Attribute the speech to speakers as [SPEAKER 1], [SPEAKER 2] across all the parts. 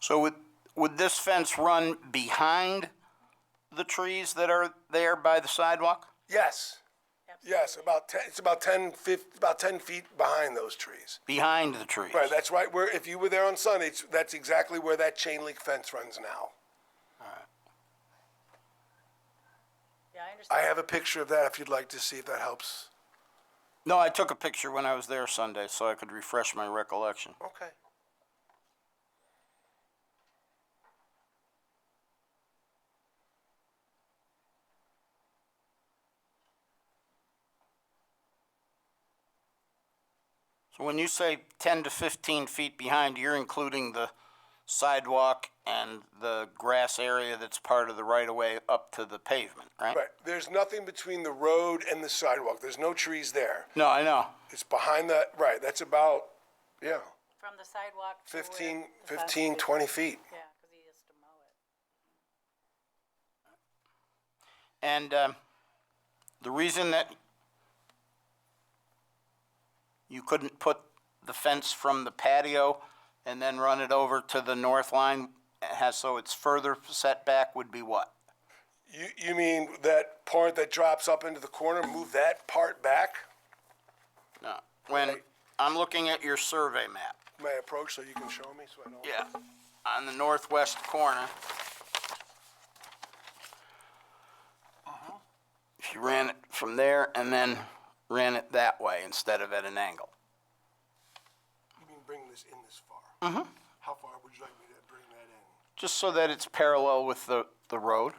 [SPEAKER 1] So would, would this fence run behind the trees that are there by the sidewalk?
[SPEAKER 2] Yes. Yes, about ten, it's about ten, fif, about ten feet behind those trees.
[SPEAKER 1] Behind the trees?
[SPEAKER 2] Right, that's right where, if you were there on Sunday, it's, that's exactly where that chain link fence runs now.
[SPEAKER 3] Yeah, I
[SPEAKER 2] I
[SPEAKER 3] understand.
[SPEAKER 2] have a picture of that if you'd like to see if that helps.
[SPEAKER 1] No, I took a picture when I was there Sunday, so I could refresh my recollection.
[SPEAKER 2] Okay.
[SPEAKER 1] So when you say 10 to 15 feet behind, you're including the sidewalk and the grass area that's part of the right-of-way up to the pavement, right?
[SPEAKER 2] Right, there's nothing between the road and the sidewalk. There's no trees there.
[SPEAKER 1] No, I know.
[SPEAKER 2] It's behind that, right, that's about, yeah,
[SPEAKER 3] From the sidewalk to where.
[SPEAKER 2] 15,
[SPEAKER 3] the fence
[SPEAKER 2] 15,
[SPEAKER 3] is.
[SPEAKER 2] 20 feet.
[SPEAKER 3] Yeah, because he has to mow it.
[SPEAKER 1] And um, the reason that you couldn't put the fence from the patio and then run it over to the north line, eh, has, so it's further setback would be what?
[SPEAKER 2] You, you mean that part that drops up into the corner, move that part back?
[SPEAKER 1] No. When I'm looking at your survey map,
[SPEAKER 2] May I approach so you can show me so I don't?
[SPEAKER 1] yeah, on the northwest corner. If you ran it from there and then ran it that way instead of at an angle.
[SPEAKER 2] You mean bring this in this far? Mm-hmm. How far would you like me to bring that in?
[SPEAKER 1] just so that it's parallel with the, the road.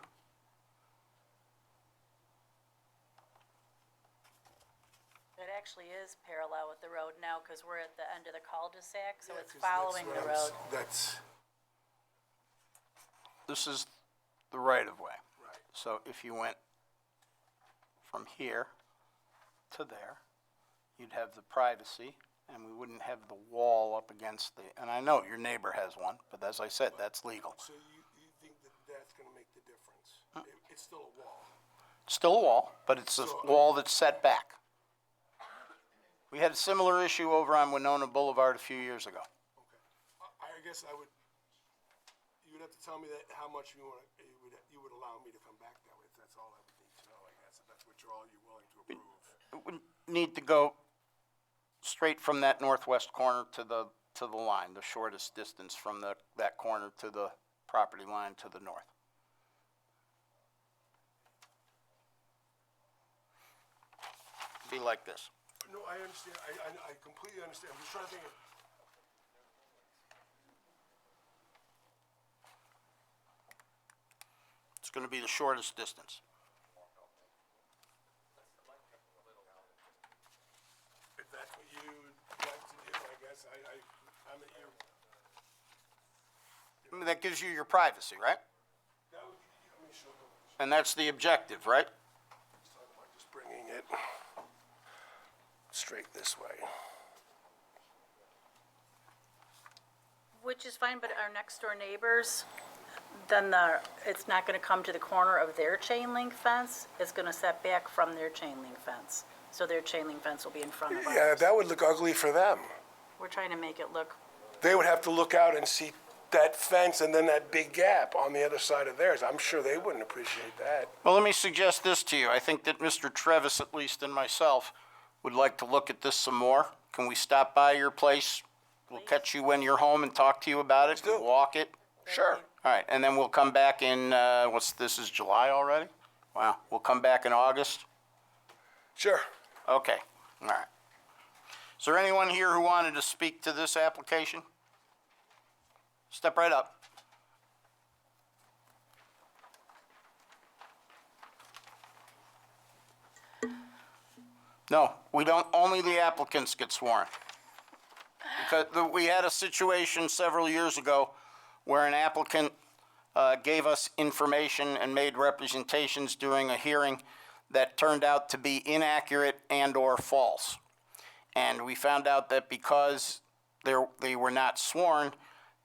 [SPEAKER 3] It actually is parallel with the road now because we're at the end of the cul-de-sac, so
[SPEAKER 2] Yeah,
[SPEAKER 3] it's
[SPEAKER 2] 'cause that's
[SPEAKER 3] following
[SPEAKER 2] what
[SPEAKER 3] the
[SPEAKER 2] I'm
[SPEAKER 3] road.
[SPEAKER 2] s- That's,
[SPEAKER 1] This is the right of way.
[SPEAKER 2] Right.
[SPEAKER 1] So if you went from here to there, you'd have the privacy and we wouldn't have the wall up against the, and I know your neighbor has one, but as I said, that's legal.
[SPEAKER 2] so you, you think that that's gonna make the difference? It- It's still a wall.
[SPEAKER 1] Still a wall, but it's a wall that's set back. We had a similar issue over on Winona Boulevard a few years ago.
[SPEAKER 2] Okay. I, I guess I would, you would have to tell me that, how much you wanna, you would, you would allow me to come back that way, if that's all I would need to know, I guess, if that's what you're all, you're willing to approve.
[SPEAKER 1] we need to go straight from that northwest corner to the, to the line, the shortest distance from the, that corner to the property line to the north. Be like this.
[SPEAKER 2] No, I understand, I, I, I completely understand, I'm just trying to think of.
[SPEAKER 1] It's gonna be the shortest distance.
[SPEAKER 2] If that's what you would like to do, I guess, I, I, I'm at your,
[SPEAKER 1] I mean, that gives you your privacy, right?
[SPEAKER 2] that would, I mean, sure, I'm
[SPEAKER 1] And that's the objective, right?
[SPEAKER 2] just talking about just bringing it straight this way.
[SPEAKER 3] Which is fine, but our next door neighbors, then the, it's not going to come to the corner of their chain link fence. It's going to set back from their chain link fence. So their chain link fence will be in front of us.
[SPEAKER 2] Yeah, that would look ugly for them.
[SPEAKER 3] We're trying to make it look,
[SPEAKER 2] They would have to look out and see that fence and then that big gap on the other side of theirs. I'm sure they wouldn't appreciate that.
[SPEAKER 1] Well, let me suggest this to you. I think that Mr. Trevis, at least, and myself would like to look at this some more. Can we stop by your place? We'll catch you when you're home and talk to you about it.
[SPEAKER 2] do.
[SPEAKER 1] Walk it.
[SPEAKER 2] Sure.
[SPEAKER 1] All right, and then we'll come back in, uh, what's, this is July already? Wow, we'll come back in August?
[SPEAKER 2] Sure.
[SPEAKER 1] Okay, all right. Is there anyone here who wanted to speak to this application? Step right up. No, we don't, only the applicants get sworn. Because the- we had a situation several years ago where an applicant uh, gave us information and made representations during a hearing that turned out to be inaccurate and/or false. And we found out that because they're- they were not sworn,